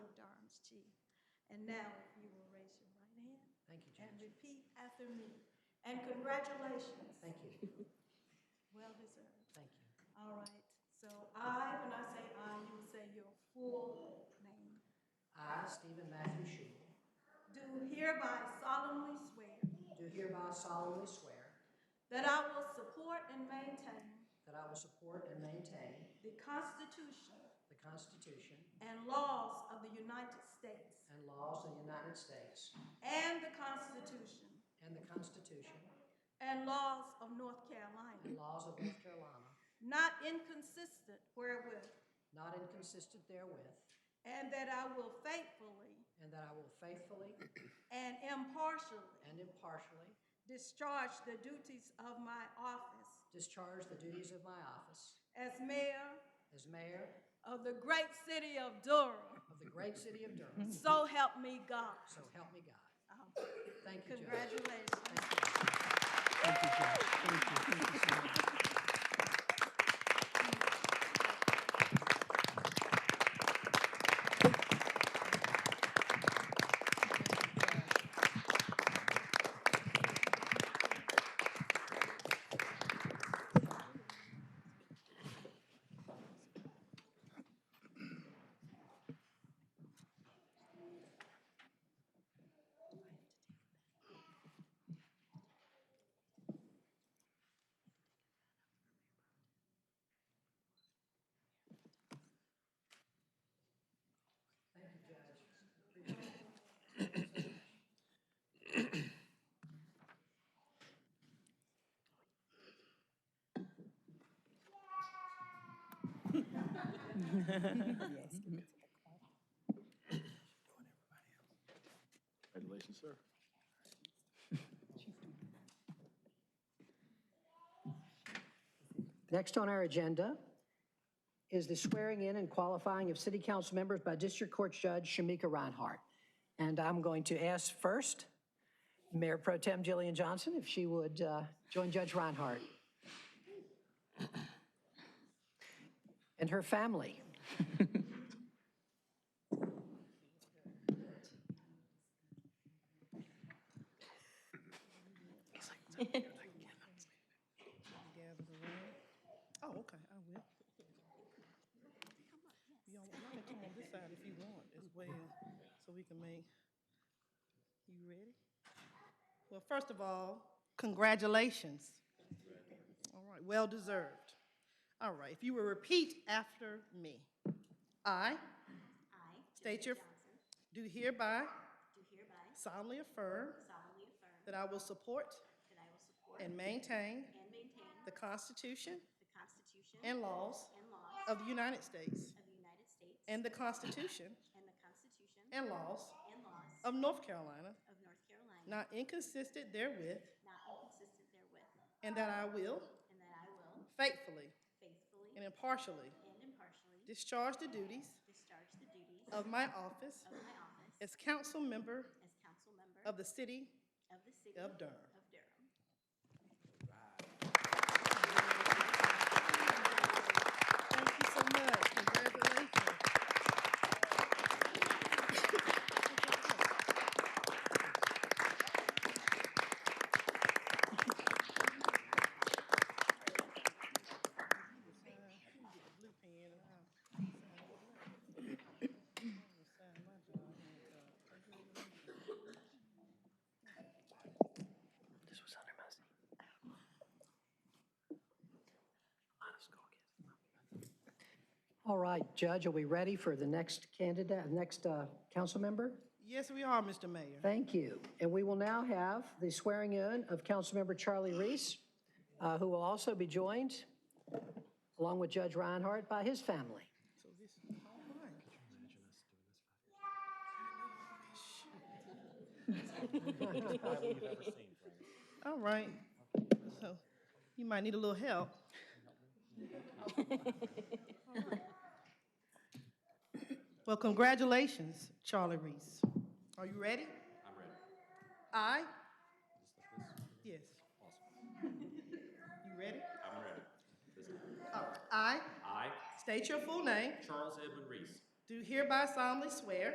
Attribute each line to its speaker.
Speaker 1: And now, if you will raise your right hand
Speaker 2: Thank you,
Speaker 1: and
Speaker 2: Judge.
Speaker 1: repeat after me. And congratulations.
Speaker 2: Thank you.
Speaker 1: Well deserved.
Speaker 2: Thank you.
Speaker 1: All right. So I, when I say I, you will say your full name.
Speaker 2: I, Stephen Matthew Shule,
Speaker 1: Do hereby solemnly swear
Speaker 2: do hereby solemnly swear
Speaker 1: that I will support and maintain
Speaker 2: that I will support and maintain
Speaker 1: the Constitution
Speaker 2: the Constitution
Speaker 1: and laws of the United States
Speaker 2: and laws of the United States
Speaker 1: and the Constitution
Speaker 2: and the Constitution
Speaker 1: and laws of North
Speaker 2: and
Speaker 1: Carolina,
Speaker 2: laws of North Carolina,
Speaker 1: not inconsistent wherewith,
Speaker 2: not inconsistent therewith,
Speaker 1: and that I will faithfully
Speaker 2: and that I will faithfully
Speaker 1: and impartially
Speaker 2: and impartially
Speaker 1: discharge the duties of my office
Speaker 2: discharge the duties of my office
Speaker 1: as mayor
Speaker 2: as mayor
Speaker 1: of the great city of Durham.
Speaker 2: of the great city of Durham.
Speaker 1: So help me God.
Speaker 2: So help me God.
Speaker 1: Um,
Speaker 2: Thank you, Judge.
Speaker 1: Congratulations.
Speaker 2: Thank you.
Speaker 3: Thank you, Judge. Thank you. Thank you so much.
Speaker 4: Congratulations, sir.
Speaker 2: Next on our agenda is the swearing in and qualifying of city council members by District Court Judge Shamika Reinhardt. And I'm going to ask first Mayor Pro Tem Jillian Johnson if she would uh, join Judge Reinhardt and her family.
Speaker 5: gather the room. Oh, okay, I will. Y'all, y'all can come on this side if you want as well, so we can make, you ready? Well, first of all, congratulations. All right, well deserved. All right, if you will repeat after me. I
Speaker 6: I,
Speaker 5: State your-
Speaker 6: Jessica Johnson,
Speaker 5: do hereby
Speaker 6: do hereby
Speaker 5: solemnly affirm
Speaker 6: solemnly affirm
Speaker 5: that I will support
Speaker 6: that I will support
Speaker 5: and
Speaker 6: and
Speaker 5: maintain
Speaker 6: maintain
Speaker 5: the Constitution
Speaker 6: the Constitution
Speaker 5: and laws
Speaker 6: and laws
Speaker 5: of the United States
Speaker 6: of the United States
Speaker 5: and the Constitution
Speaker 6: and the Constitution
Speaker 5: and laws
Speaker 6: and laws
Speaker 5: of North Carolina,
Speaker 6: of North Carolina,
Speaker 5: not inconsistent therewith,
Speaker 6: not inconsistent therewith,
Speaker 5: and that I will
Speaker 6: and that I will
Speaker 5: faithfully
Speaker 6: faithfully
Speaker 5: and impartially
Speaker 6: and impartially
Speaker 5: discharge the duties
Speaker 6: discharge the duties
Speaker 5: of
Speaker 6: of
Speaker 5: my office
Speaker 6: my office
Speaker 5: as council member
Speaker 6: as council member
Speaker 5: of the city.
Speaker 6: of the city
Speaker 5: of Durham.
Speaker 6: Of Durham.
Speaker 5: Thank you so much. Congratulations. Blue pen and I'll- Sign my job.
Speaker 3: This was under my seat. Honest, go get it.
Speaker 2: All right, Judge, are we ready for the next candidate, next uh, council member?
Speaker 5: Yes, we are, Mr. Mayor.
Speaker 2: Thank you. And we will now have the swearing in of Councilmember Charlie Reese, uh, who will also be joined, along with Judge Reinhardt, by his family.
Speaker 5: So this is all mine. All right. So you might need a little help. Well, congratulations, Charlie Reese. Are you ready?
Speaker 7: I'm ready.
Speaker 5: I,
Speaker 7: Just like this?
Speaker 5: yes.
Speaker 7: Awesome.
Speaker 5: You ready?
Speaker 7: I'm ready. Listen.
Speaker 5: I
Speaker 7: I,
Speaker 5: state your full name,
Speaker 7: Charles Edmund Reese,
Speaker 5: do hereby solemnly swear